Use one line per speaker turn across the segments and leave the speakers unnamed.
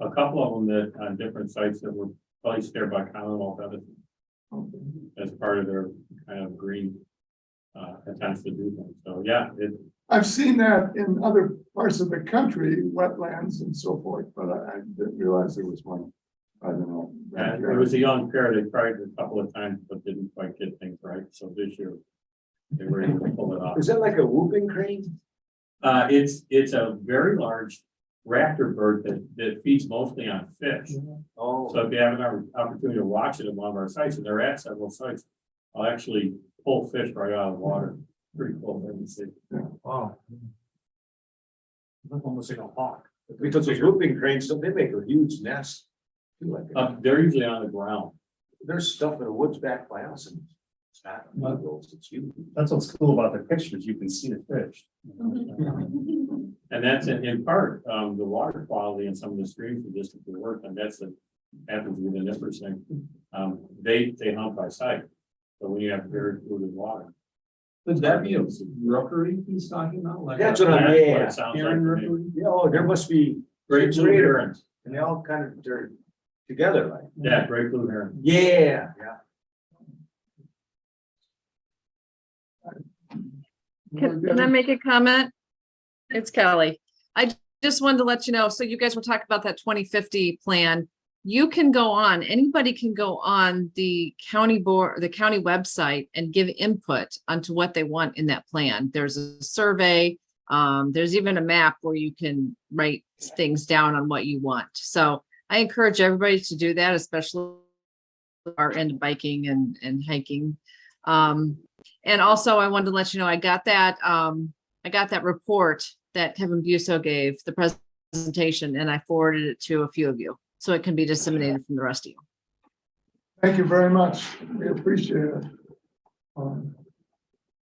a couple of them that on different sites that were placed there by Commonwealth Edison as part of their kind of green uh, attempts to do things. So, yeah, it,
I've seen that in other parts of the country, wetlands and so forth, but I I didn't realize there was one. I don't know.
yeah, uh, it was a young pair. They tried it a couple of times, but didn't quite get things right. So this year they were able to pull it off.
Is that like a whooping crane?
Uh, it's, it's a very large raptor bird that, that feeds mostly on fish. So
Oh,
if you have an opp- opportunity to watch it at one of our sites, and they're at several sites, I'll actually pull fish right out of the water. Pretty cool, let me see.
wow. Almost like a hawk. Because those whooping cranes, so they make a huge nest. Do like,
Uh, they're usually on the ground.
There's stuff in the woods back by us and it's not, it's huge.
That's what's cool about the pictures, you can see the fish.
Mm-hmm.
And that's in, in part, um, the water quality in some of the streams we just did work, and that's, the- happens with an nipper thing. Um, they, they hunt by sight. So when you have very polluted water.
Would that be a rookery he's talking about? Like
That's
a
what I'm,
That's what
yeah.
it sounds like to
Karen
me.
rookery?
Yeah, oh, there must be,
Great blue heron,
and they all kind of, they're together like.
yeah, great blue heron.
Yeah, yeah.
Can, can I make a comment? It's Kelly. I j- just wanted to let you know, so you guys were talking about that twenty fifty plan. You can go on, anybody can go on the county board, the county website and give input onto what they want in that plan. There's a survey. Um, there's even a map where you can write things down on what you want. So I encourage everybody to do that, especially are into biking and, and hiking. Um, and also I wanted to let you know, I got that, um, I got that report that Kevin Buso gave, the presentation, and I forwarded it to a few of you. So it can be disseminated from the rest of you.
Thank you very much. We appreciate it. Um,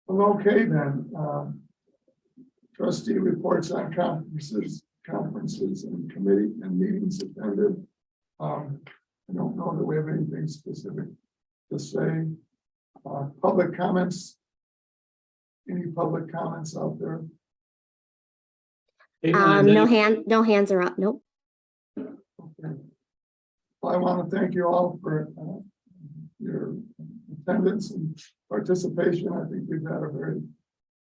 Well, okay then. um, Trustee reports on conferences, conferences and committee and meetings attended. Um, I don't know that we have anything specific to say. Uh, Public comments? Any public comments out there?
Um, no hand, no hands are up, nope.
Okay. Well, I want to thank you all for uh, your attendance and participation. I think we've had a very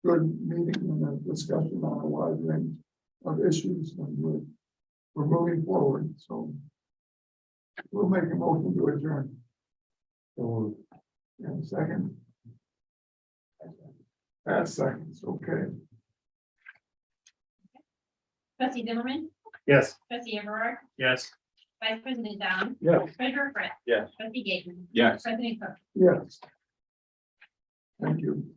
good meeting and a discussion on a wide range of issues and we're, we're moving forward, so we'll make a motion to adjourn. So, and second. That's seconds, okay.
Trustee Zimmerman,
Yes.
trustee Everard,
Yes.
vice president Dom.
Yes.
Treasurer Fritz.
Yes.
Trustee Gaten.
Yes.
President Cook.
Yes. Thank you.